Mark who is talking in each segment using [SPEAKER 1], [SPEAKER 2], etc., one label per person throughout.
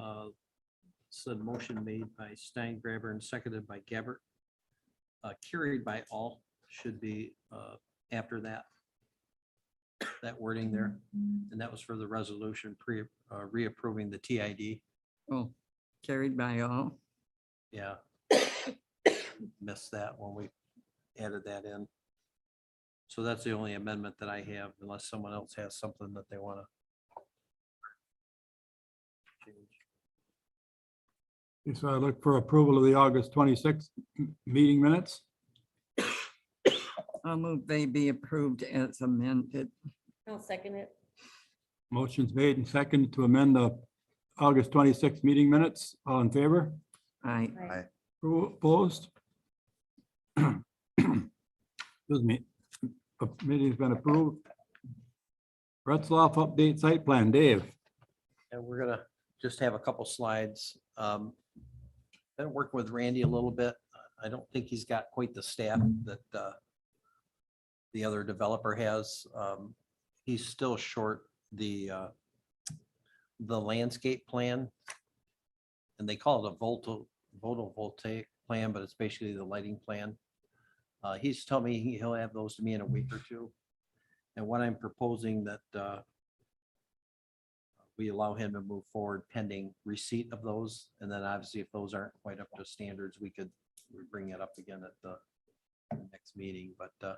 [SPEAKER 1] uh, it's a motion made by Stein Grabber and seconded by Gabbert. Uh, carried by all should be, uh, after that. That wording there, and that was for the resolution pre, uh, reapproving the TID,
[SPEAKER 2] Oh, carried by all.
[SPEAKER 1] yeah. Missed that when we added that in. So that's the only amendment that I have unless someone else has something that they wanna. change.
[SPEAKER 3] Okay, So I look for approval of the August 26th m- meeting minutes.
[SPEAKER 2] I'll move they be approved as amended.
[SPEAKER 4] I'll second it.
[SPEAKER 3] Motion's made and seconded to amend the August 26th meeting minutes. All in favor?
[SPEAKER 2] I,
[SPEAKER 4] Aye.
[SPEAKER 3] Opposed? Excuse me. Uh, Meeting's been approved. Retzloff update site plan. Dave?
[SPEAKER 1] And we're gonna just have a couple slides. Um, Been working with Randy a little bit. I don't think he's got quite the staff that uh, the other developer has. Um, He's still short the uh, the landscape plan. And they call it a volto, photovoltaic plan, but it's basically the lighting plan. Uh, He's told me he- he'll have those to me in a week or two. And what I'm proposing that uh, we allow him to move forward pending receipt of those. And then obviously if those aren't quite up to standards, we could we bring it up again at the next meeting, but uh,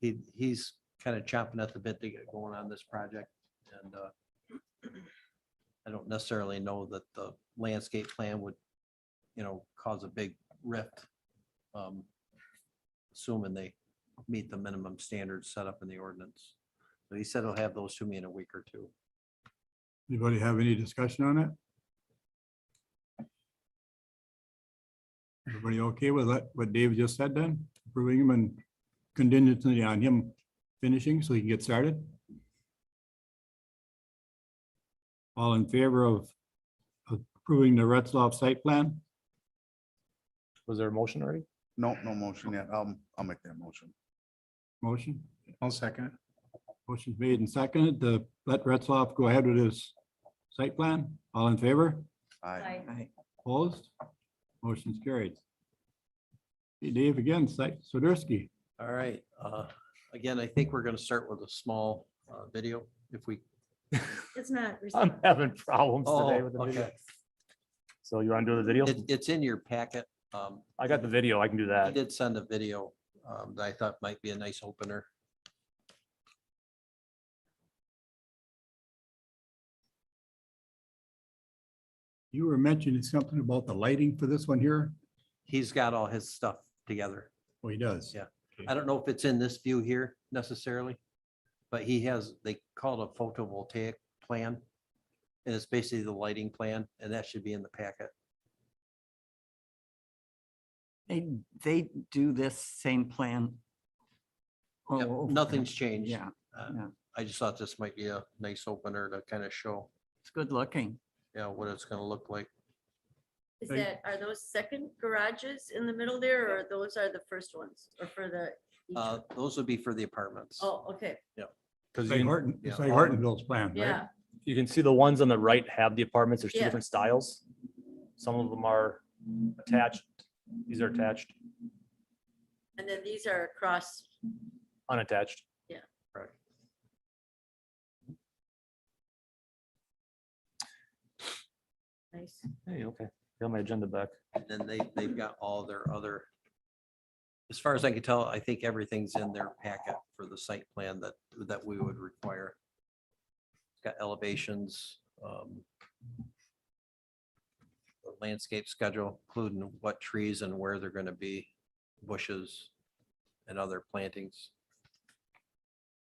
[SPEAKER 1] he, he's kind of chomping at the bit to get going on this project and uh, I don't necessarily know that the landscape plan would, you know, cause a big rift. um, Assuming they meet the minimum standards set up in the ordinance. So he said he'll have those to me in a week or two.
[SPEAKER 3] Anybody have any discussion on it? Everybody okay with that, what Dave just said then? Approving him and contingency on him finishing so he can get started? All in favor of approving the Retzloff site plan?
[SPEAKER 5] Was there a motion already?
[SPEAKER 6] No, no motion yet. I'll, I'll make that motion.
[SPEAKER 3] Motion,
[SPEAKER 5] I'll second.
[SPEAKER 3] motion made and seconded to let Retzloff go ahead with his site plan. All in favor?
[SPEAKER 6] Aye.
[SPEAKER 2] I,
[SPEAKER 3] Opposed? Motion's carried. Hey, Dave again, Site Soderski.
[SPEAKER 1] All right, uh, again, I think we're gonna start with a small, uh, video if we.
[SPEAKER 4] It's not.
[SPEAKER 5] I'm having problems today
[SPEAKER 1] Oh,
[SPEAKER 5] with the video.
[SPEAKER 1] okay.
[SPEAKER 5] So you want to do the video?
[SPEAKER 1] It, it's in your packet. Um,
[SPEAKER 5] I got the video. I can do
[SPEAKER 1] I
[SPEAKER 5] that.
[SPEAKER 1] did send a video, um, that I thought might be a nice opener.
[SPEAKER 3] You were mentioning something about the lighting for this one here.
[SPEAKER 1] He's got all his stuff together.
[SPEAKER 3] Oh, he does.
[SPEAKER 1] Yeah. I don't know if it's in this view here necessarily, but he has, they call it a photovoltaic plan. And it's basically the lighting plan, and that should be in the packet.
[SPEAKER 2] they, they do this same plan. all
[SPEAKER 1] Yep,
[SPEAKER 2] over.
[SPEAKER 1] Nothing's changed.
[SPEAKER 2] Oh, Yeah,
[SPEAKER 1] Uh,
[SPEAKER 2] yeah.
[SPEAKER 1] I just thought this might be a nice opener to kind of show,
[SPEAKER 2] it's good looking.
[SPEAKER 1] you know, what it's gonna look like.
[SPEAKER 4] Is that, are those second garages in the middle there or those are the first ones or for the? each
[SPEAKER 1] Uh,
[SPEAKER 4] one?
[SPEAKER 1] those would be for the apartments.
[SPEAKER 4] Oh, okay,
[SPEAKER 5] Because
[SPEAKER 3] Like Horton,
[SPEAKER 1] yeah.
[SPEAKER 3] it's like Hortonville's plan, right?
[SPEAKER 4] yeah,
[SPEAKER 5] you can see the ones on the right have the apartments. There's two
[SPEAKER 4] Yeah.
[SPEAKER 5] different styles. Some of them are attached. These are attached,
[SPEAKER 4] and then these are across,
[SPEAKER 5] unattached.
[SPEAKER 4] nice,
[SPEAKER 5] Hey, okay. Got my agenda back.
[SPEAKER 1] And then they, they've got all their other. As far as I can tell, I think everything's in their packet for the site plan that, that we would require. It's Got elevations, um. the Landscape schedule, including what trees and where they're gonna be, bushes and other plantings.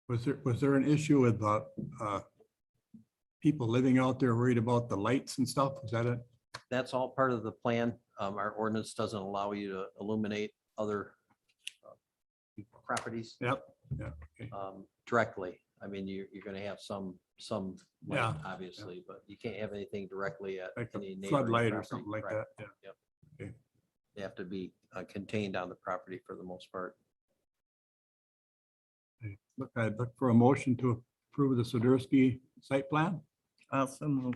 [SPEAKER 3] Was there, was there an issue with the uh, people living out there worried about the lights and stuff? Is that it?
[SPEAKER 1] That's all part of the plan. Um, our ordinance doesn't allow you to illuminate other uh, properties.
[SPEAKER 3] Yep, yeah, okay.
[SPEAKER 1] um, directly. I mean, you're, you're gonna have some, some, light,
[SPEAKER 3] Yeah,
[SPEAKER 1] obviously, but you can't have anything directly at
[SPEAKER 3] Like
[SPEAKER 1] any
[SPEAKER 3] a
[SPEAKER 1] neighboring
[SPEAKER 3] floodlight or
[SPEAKER 1] property.
[SPEAKER 3] something like
[SPEAKER 1] Correct.
[SPEAKER 3] that? Yeah.
[SPEAKER 1] They have to be uh, contained on the property for the most part.
[SPEAKER 3] Look, I'd look for a motion to approve the Soderski site plan.
[SPEAKER 2] Also move